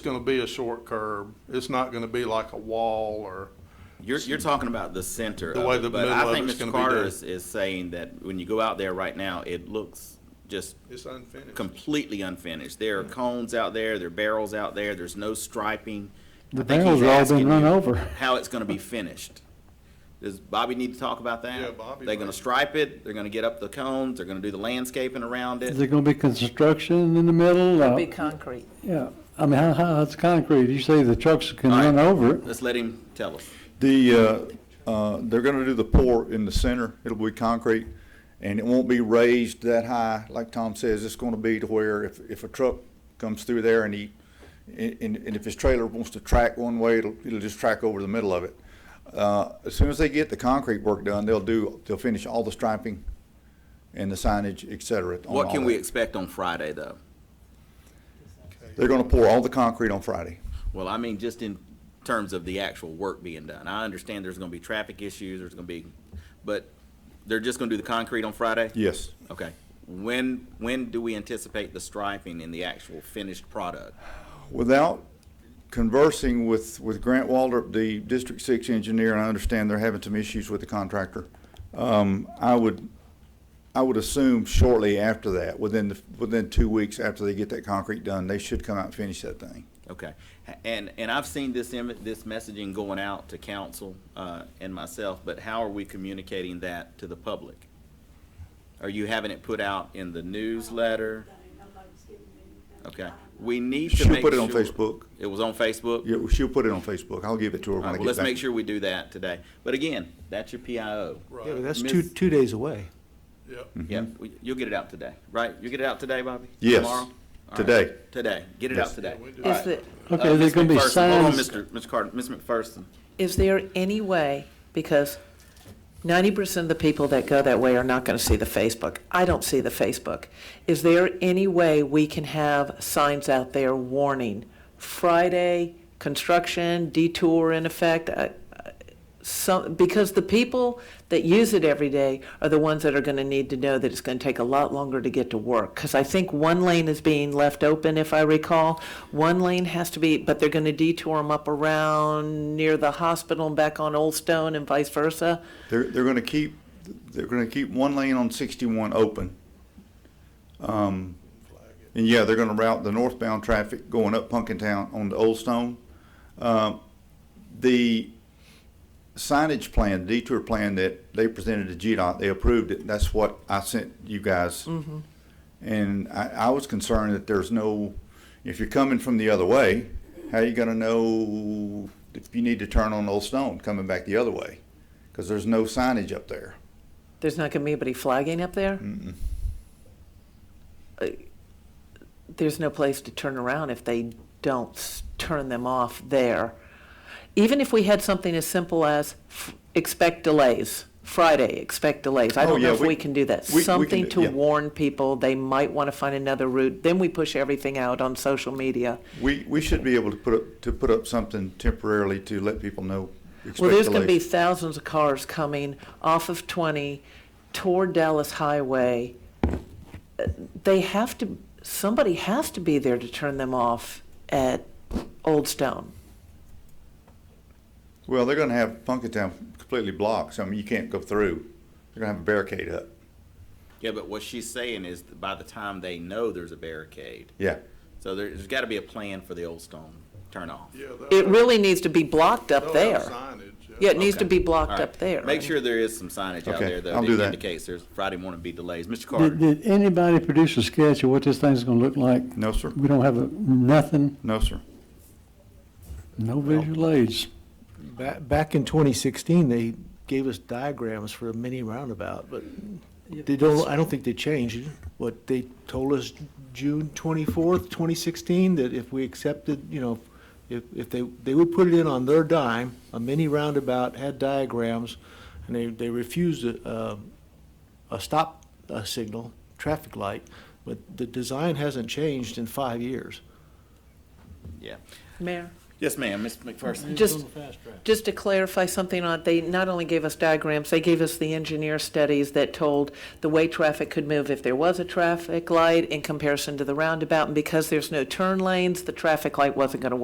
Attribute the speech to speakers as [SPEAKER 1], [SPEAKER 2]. [SPEAKER 1] going to be a short curb. It's not going to be like a wall or,
[SPEAKER 2] You're, you're talking about the center
[SPEAKER 1] The
[SPEAKER 2] of
[SPEAKER 1] way
[SPEAKER 2] it,
[SPEAKER 1] the
[SPEAKER 2] but
[SPEAKER 1] middle
[SPEAKER 2] I
[SPEAKER 1] of
[SPEAKER 2] think
[SPEAKER 1] it's
[SPEAKER 2] Mr.
[SPEAKER 1] gonna be
[SPEAKER 2] Carter
[SPEAKER 1] done.
[SPEAKER 2] is, is saying that when you go out there right now, it looks just
[SPEAKER 1] it's unfinished.
[SPEAKER 2] completely unfinished. There are cones out there, there are barrels out there, there's no striping.
[SPEAKER 3] The
[SPEAKER 2] I think he's
[SPEAKER 3] barrels are all
[SPEAKER 2] asking
[SPEAKER 3] been run
[SPEAKER 2] you
[SPEAKER 3] over.
[SPEAKER 2] How it's gonna be finished. Does Bobby need to talk about that?
[SPEAKER 1] Yeah, Bobby
[SPEAKER 2] They're gonna
[SPEAKER 1] might.
[SPEAKER 2] stripe it, they're gonna get up the cones, they're gonna do the landscaping around
[SPEAKER 3] Is
[SPEAKER 2] it.
[SPEAKER 3] there gonna be construction in the middle? Uh,
[SPEAKER 4] Be concrete.
[SPEAKER 3] Yeah, I mean, how, how, it's concrete, you say the trucks can
[SPEAKER 2] All right.
[SPEAKER 3] run over it.
[SPEAKER 2] Let's let him tell us.
[SPEAKER 5] The, uh, uh, they're gonna do the pour in the center, it'll be concrete, and it won't be raised that high, like Tom says, it's gonna be to where if, if a truck comes through there and he, and, and if his trailer wants to track one way, it'll, it'll just track over the middle of it. Uh, as soon as they get the concrete work done, they'll do, they'll finish all the striping and the signage, et cetera. on
[SPEAKER 2] What
[SPEAKER 5] all
[SPEAKER 2] can we
[SPEAKER 5] that.
[SPEAKER 2] expect on Friday, though?
[SPEAKER 5] They're gonna pour all the concrete on Friday.
[SPEAKER 2] Well, I mean, just in terms of the actual work being done. I understand there's gonna be traffic issues, there's gonna be, but they're just gonna do the concrete on Friday?
[SPEAKER 5] Yes.
[SPEAKER 2] Okay. When, when do we anticipate the striping in the actual finished product?
[SPEAKER 5] Without conversing with, with Grant Waldrop, the District Six engineer, and I understand they're having some issues with the contractor, um, I would, I would assume shortly after that, within, the within two weeks after they get that concrete done, they should come out and finish that thing.
[SPEAKER 2] Okay. And, and I've seen this, im- this messaging going out to council, uh, and myself, but how are we communicating that to the public? Are you having it put out in the newsletter? Okay. We need to
[SPEAKER 5] She'll
[SPEAKER 2] make
[SPEAKER 5] put it on
[SPEAKER 2] sure-
[SPEAKER 5] Facebook.
[SPEAKER 2] It was on Facebook?
[SPEAKER 5] Yeah, well, she'll put it on Facebook. I'll give it to her
[SPEAKER 2] All
[SPEAKER 5] when I
[SPEAKER 2] right,
[SPEAKER 5] get back.
[SPEAKER 2] well, let's make sure we do that today. But again, that's your PIO.
[SPEAKER 6] Yeah, but
[SPEAKER 1] Right,
[SPEAKER 6] that's two,
[SPEAKER 2] Miss-
[SPEAKER 6] two days away.
[SPEAKER 1] yep.
[SPEAKER 2] Yeah, we- you'll get it out today, right? You'll get it out today, Bobby?
[SPEAKER 5] Yes,
[SPEAKER 2] Tomorrow? All right,
[SPEAKER 5] today.
[SPEAKER 2] Today, get it out
[SPEAKER 5] Yes.
[SPEAKER 2] today.
[SPEAKER 1] Yeah, we do.
[SPEAKER 2] All
[SPEAKER 4] Is
[SPEAKER 2] right.
[SPEAKER 4] there,
[SPEAKER 2] Uh,
[SPEAKER 3] Okay, there's
[SPEAKER 2] Ms.
[SPEAKER 3] gonna be
[SPEAKER 2] McPherson, hold on,
[SPEAKER 3] signs,
[SPEAKER 2] Mr. Ms. Carter, Ms. McPherson.
[SPEAKER 4] is there any way, because ninety percent of the people that go that way are not gonna see the Facebook. I don't see the Facebook. Is there any way we can have signs out there warning, Friday, construction, detour in effect? uh, uh, Some, because the people that use it every day are the ones that are gonna need to know that it's gonna take a lot longer to get to work. Cause I think one lane is being left open, if I recall. One lane has to be, but they're gonna detour them up around near the hospital and back on Old Stone and vice versa.
[SPEAKER 5] They're, they're gonna keep, they're gonna keep one lane on sixty-one open. Um, and yeah, they're gonna route the northbound traffic going up Punkintown on the Old Stone. Um, the signage plan, detour plan that they presented to GDOT, they approved it. That's what I sent you guys. And I, I was concerned that there's no, if you're coming from the other way, how you gonna know if you need to turn on Old Stone coming back the other way? Because there's no signage up there.
[SPEAKER 4] There's not gonna be anybody flagging up there? Uh, There's no place to turn around if they don't s- turn them off there. Even if we had something as simple as f- expect delays, Friday, expect delays. I
[SPEAKER 5] Oh,
[SPEAKER 4] don't know
[SPEAKER 5] yeah,
[SPEAKER 4] if
[SPEAKER 5] we-
[SPEAKER 4] we can do that.
[SPEAKER 5] we- we can
[SPEAKER 4] Something
[SPEAKER 5] do-
[SPEAKER 4] to
[SPEAKER 5] yeah.
[SPEAKER 4] warn people, they might wanna find another route. Then we push everything out on social media.
[SPEAKER 5] We, we should be able to put up, to put up something temporarily to let people know.
[SPEAKER 4] Well, there's
[SPEAKER 5] expect
[SPEAKER 4] going to be
[SPEAKER 5] delays.
[SPEAKER 4] thousands of cars coming off of 20 toward Dallas Highway. Uh, They have to, somebody has to be there to turn them off at Old Stone.
[SPEAKER 5] Well, they're gonna have Punkintown completely blocked, so I mean, you can't go through. They're gonna have a barricade up.
[SPEAKER 2] Yeah, but what she's saying is that by the time they know there's a barricade,
[SPEAKER 5] Yeah.
[SPEAKER 2] so there- there's gotta be a plan for the old stone turn off.
[SPEAKER 1] Yeah, they'll
[SPEAKER 4] It
[SPEAKER 1] have-
[SPEAKER 4] really needs to be blocked up
[SPEAKER 1] they'll have
[SPEAKER 4] there.
[SPEAKER 1] signage,
[SPEAKER 4] Yeah, it needs to
[SPEAKER 2] Okay.
[SPEAKER 4] be
[SPEAKER 2] All
[SPEAKER 4] blocked
[SPEAKER 2] right.
[SPEAKER 4] up there.
[SPEAKER 2] Make sure there is some signage out
[SPEAKER 5] Okay,
[SPEAKER 2] there though
[SPEAKER 5] I'll do
[SPEAKER 2] that
[SPEAKER 5] that.
[SPEAKER 2] indicates there's Friday morning be delays. Mr.
[SPEAKER 3] did,
[SPEAKER 2] Carter,
[SPEAKER 3] did anybody produce a sketch of what this thing's gonna look like?
[SPEAKER 5] No, sir.
[SPEAKER 3] We don't have a, nothing,
[SPEAKER 5] No, sir.
[SPEAKER 3] no visual aids.
[SPEAKER 6] Back, back in 2016, they gave us diagrams for a mini roundabout, but they don't, I don't think they changed. What they told us June 24th, 2016, that if we accepted, you know, if, if they, they would put it in on their dime, a mini roundabout had diagrams, and they, they refused a, um, a stop uh, signal, traffic light, but the design hasn't changed in five years.
[SPEAKER 2] yeah.
[SPEAKER 4] Mayor,
[SPEAKER 2] Yes, ma'am, Ms. McPherson.
[SPEAKER 4] Just, just to clarify something on, they not only gave us diagrams, they gave us the engineer studies that told the way traffic could move if there was a traffic light in comparison to the roundabout. And because there's no turn lanes, the traffic light wasn't going to work.